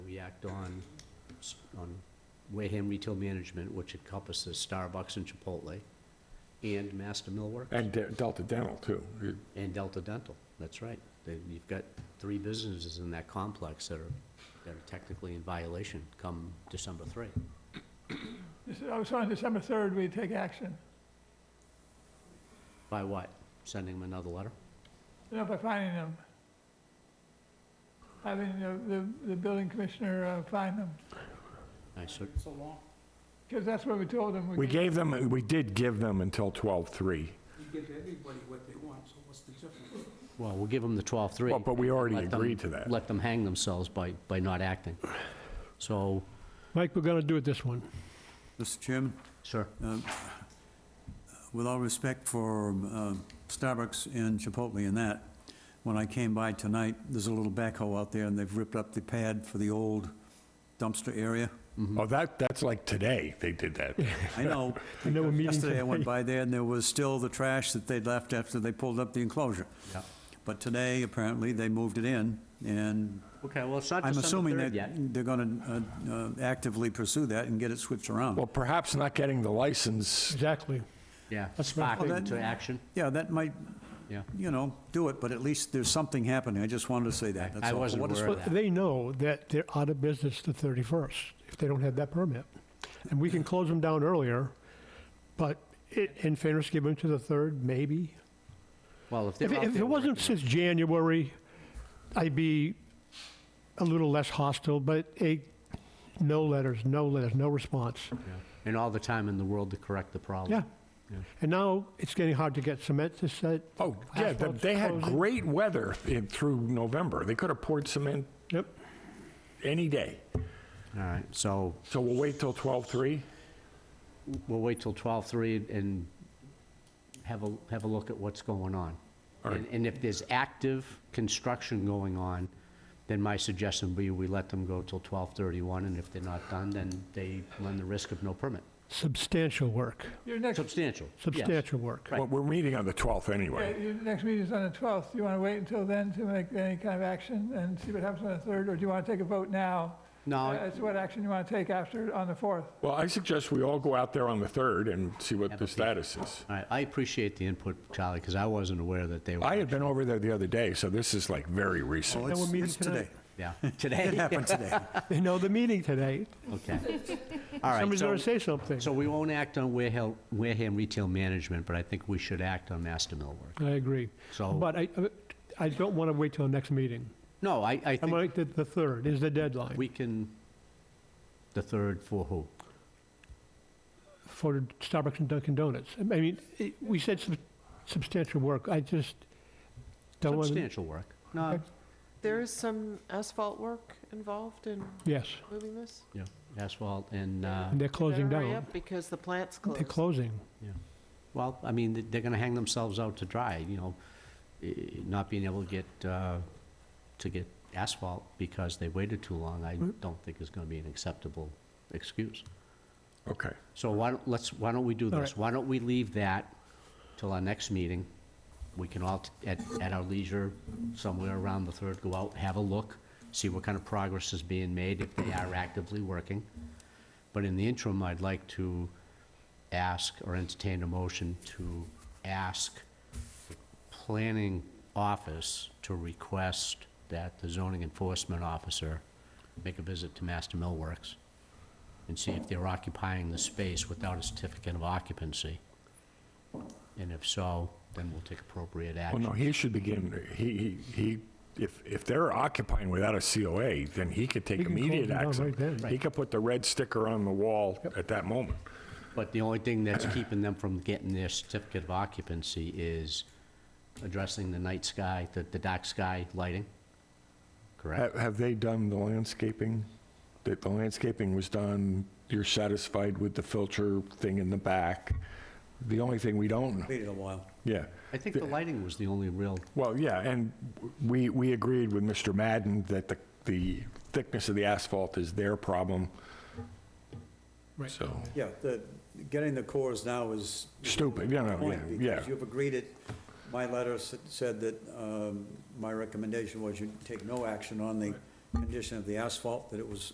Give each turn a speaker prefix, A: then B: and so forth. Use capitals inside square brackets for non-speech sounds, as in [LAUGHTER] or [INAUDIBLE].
A: Act on, s- on Wareham retail management, which encompasses Starbucks and Chipotle, and Master Millwork,
B: And De- Delta Dental, too. You-
A: and Delta Dental, that's right. Then You've got three businesses in that complex that are, that are technically in violation come December 3.
C: This- I was on December 3rd, we take action.
A: By what? Sending them another letter?
C: You know, by finding them. Having the, the, the building commissioner uh, find them,
A: I said,
C: because that's what we told him.
B: We gave them, we did give them until 12/3.
D: You give everybody what they want, so what's the difference?
A: well, we'll give them the 12-3.
B: Well, but we already
A: Let them-
B: agreed to that.
A: Let them hang themselves by, by not acting. So,
E: Mike, we're gonna do it this one.
D: Mr. Chairman,
A: sir,
D: with all respect for um, Starbucks and Chipotle and that, when I came by tonight, there's a little backhoe out there, and they've ripped up the pad for the old dumpster area.
B: Oh, that, that's like today they did that.
D: I know.
E: And they were meeting
D: Yesterday, I went
E: today.
D: by there, and there was still the trash that they'd left after they pulled up the enclosure.
A: yeah.
D: But today, apparently, they moved it in, and
A: Okay, well, it's not
D: I'm
A: December
D: assuming
A: 3rd
D: that
A: yet.
D: they're going to actively pursue that and get it switched around.
B: Well, perhaps not getting the license,
E: Exactly.
A: Yeah,
E: That's my
A: spark
D: thing.
A: into action,
D: Yeah, that might,
A: yeah.
D: you know, do it, but at least there's something happening. I just wanted to say that.
A: I-
D: That's
A: I
D: all.
A: wasn't
D: What is-
A: aware
E: Well,
A: of that.
E: they know that they're out of business the 31st if they don't have that permit. And we can close them down earlier, but it, in fairness, give them to the 3rd, maybe.
A: Well, if they're
E: If,
A: out
E: it- if
A: there
E: it wasn't
A: working-
E: since January, I'd be a little less hostile, but a, no letters, no letters, no response.
A: Yeah. And all the time in the world to correct the problem.
E: Yeah. And now it's getting hard to get cement to set.
B: oh, yeah, they-
E: asphalt's
B: they had
E: closing.
B: great weather in- through November. They could have poured cement
E: Yep.
B: any day.
A: All right, so
B: So we'll wait till 12/3?
A: we'll wait till 12:03 and have a, have a look at what's going on.
B: All right.
A: And and if there's active construction going on, then my suggestion would be we let them go till 12:31, and if they're not done, then they run the risk of no permit.
E: Substantial work,
C: Your next,
A: Substantial, yes.
E: substantial work.
A: Right.
B: Well, we're meeting on the 12th
C: yeah,
B: anyway.
C: your next meeting's on the 12th. Do you want to wait until then to make any kind of action and see what happens on the 3rd? Or do you want to take a vote now?
A: No.
C: As to what action you want to take after, on the 4th?
B: Well, I suggest we all go out there on the 3rd and see what the status is.
A: All right, I appreciate the input, Charlie, because I wasn't aware that they were.
B: I had been over there the other day, so this is like very recent.
D: Oh,
E: we're
D: it's
E: meeting
D: it's today.
A: Yeah, today?
D: It happened [LAUGHS] today.
E: They know the meeting today.
A: Okay. All right.
E: Somebody's gonna
A: so-
E: say something.
A: So we won't act on Wareham, Wareham Retail Management, but I think we should act on Master Millwork.
E: I agree.
A: So-
E: But I, uh, I don't want to wait till next meeting.
A: No, I, I
E: I'm
A: think
E: like, the, the third is the deadline
A: we can, the third for who?
E: for Starbucks and Dunkin' Donuts. I mean, it- we said sub- substantial work. I just don't want to.
A: Substantial work. No,
E: Okay.
F: There is some asphalt work involved in
E: Yes,
F: moving this?
A: yeah, asphalt and, uh,
E: and they're
F: You better
E: closing
F: hurry
E: down.
F: up Because the plant's
E: They're
F: closed.
E: closing.
A: well, I mean, th- they're gonna hang themselves out to dry, you know, eh, not being able to get, uh, to get asphalt because they waited too long, I don't think is gonna be an acceptable excuse.
B: Okay.
A: So why don't, let's, why don't we do
E: All
A: this?
E: right.
A: Why don't we leave that till our next meeting? We can all, t- at, at our leisure, somewhere around the third, go out, have a look, see what kind of progress is being made, if they are actively working. But in the interim, I'd like to ask or entertain a motion to ask the planning office to request that the zoning enforcement officer make a visit to Master Millworks and see if they're occupying the space without a certificate of occupancy. And if so, then we'll take appropriate
B: Well, no,
A: action.
B: he should begin, he, he, he- if, if they're occupying without a COA, then he could take
E: He can close
B: immediate
E: them down right
B: action.
E: then.
B: He could put the red sticker on the wall at that moment.
A: But the only thing that's keeping them from getting their certificate of occupancy is addressing the night sky, the, the dark sky lighting, correct?
B: Have, have they done the landscaping? That the landscaping was done, you're satisfied with the filter thing in the back? The only thing we don't,
D: Waited a while.
B: yeah.
A: I think the lighting was the only real,
B: Well, yeah, and we, we agreed with Mr. Madden that the, the thickness of the asphalt is their problem.
E: Right.
B: So,
D: Yeah, the, getting the cores now is.
B: Stupid, yeah, no,
D: Point,
B: yeah,
D: Because
B: yeah.
D: you've agreed it, my letter s- said that um, my recommendation was you take no action on the condition of the asphalt, that it was